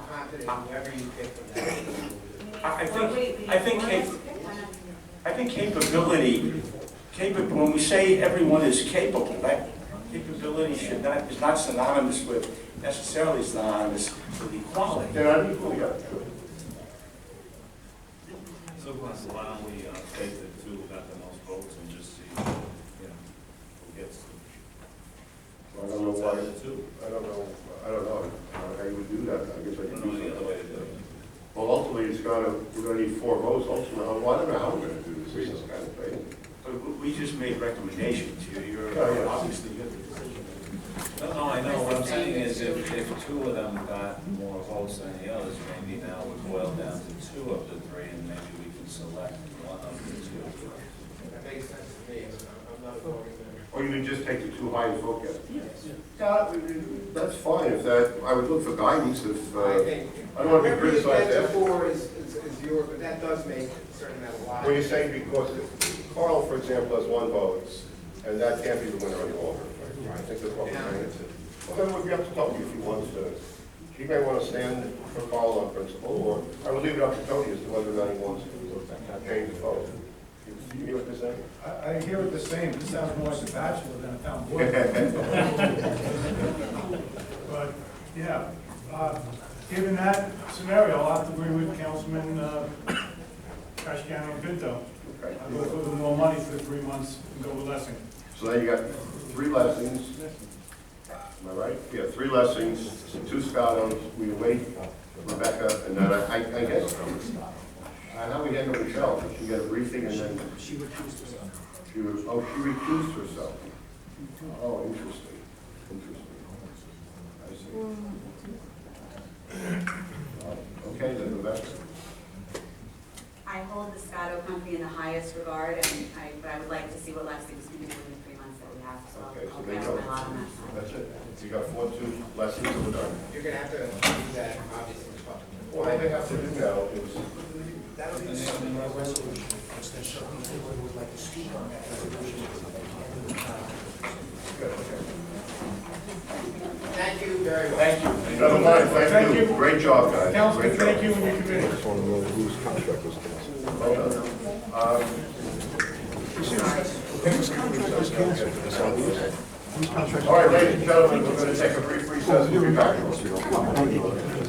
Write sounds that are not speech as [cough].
whoever you pick for that. I I think, I think, cap- I think capability, capable, when we say everyone is capable, that capability should not, is not synonymous with, necessarily synonymous with equality. They're unequal, yeah. So Russ, why don't we uh, take the two who got the most votes and just see, you know, who gets the. I don't know why, Out of the two. I don't know, I don't know how you would do that, I guess I I don't could do know the other something. way to do it. Well, ultimately, it's gotta, we're gonna need four votes ultimately, well, I don't know how we're gonna do this, this is kind of thing. But we- We just made recommendations, You're- Oh, yeah. you're, obviously, you're the decision maker. No, no, I know, what I'm saying is if, if two of them got more votes than the others, maybe now we boil down to two of the three and maybe we can select one of the two. That makes sense to me, so I'm not voting there. Or you can just take the two highest vote getters. Yeah, that's fine, if that, I would look for guidance if, I uh, think, I don't wanna be whoever you criticized get to after. four is, is, is your, but that does make a certain amount of when you logic. say because Carl, for example, has one vote, and that can't be the winner on the alternate. right? I think that's what we're trying to say. Well, then it would be up to Tony if he wants to, he may want to stand for Carl on principle, or I would leave it up to Tony as to whether or not he wants to change the vote. Do you hear what they're saying? I, I hear it the same, this sounds more like a bachelor than a town board. [laughs] But, yeah, uh, given that scenario, I'll have to agree with Councilman, uh, Casciano and Pinto. Okay. I'll go for the more money for three months and go with Lessing. So then you got three lessons, am I right? Yeah, three lessons, two Scottos, we await Rebecca, and then I, I I guess, I know we had no Michelle, but she got a briefing and then. She recused herself. She was, oh, she recused herself. Oh, interesting, interesting. I see. Okay, then Rebecca. I hold the Scotto company in the highest regard, and I, but I would like to see what Lexington's gonna do in the three months that we have, so Okay, I'll- so I'll they bet go. my lot on that side. That's it. You got four, two lessons, and we're done. You're gonna have to do that, obviously, but Well, they have to do now is That'll be something in our resolution, because there's certain people who would like to speak on that resolution. and, uh, thank you very much. Thank you. Never mind, thank Thank you. you. Great job, guys. Great Councilman, job. thank you and your committee. Well done. Um, All right, ladies and gentlemen, we're going to take a brief recess. We'll be back.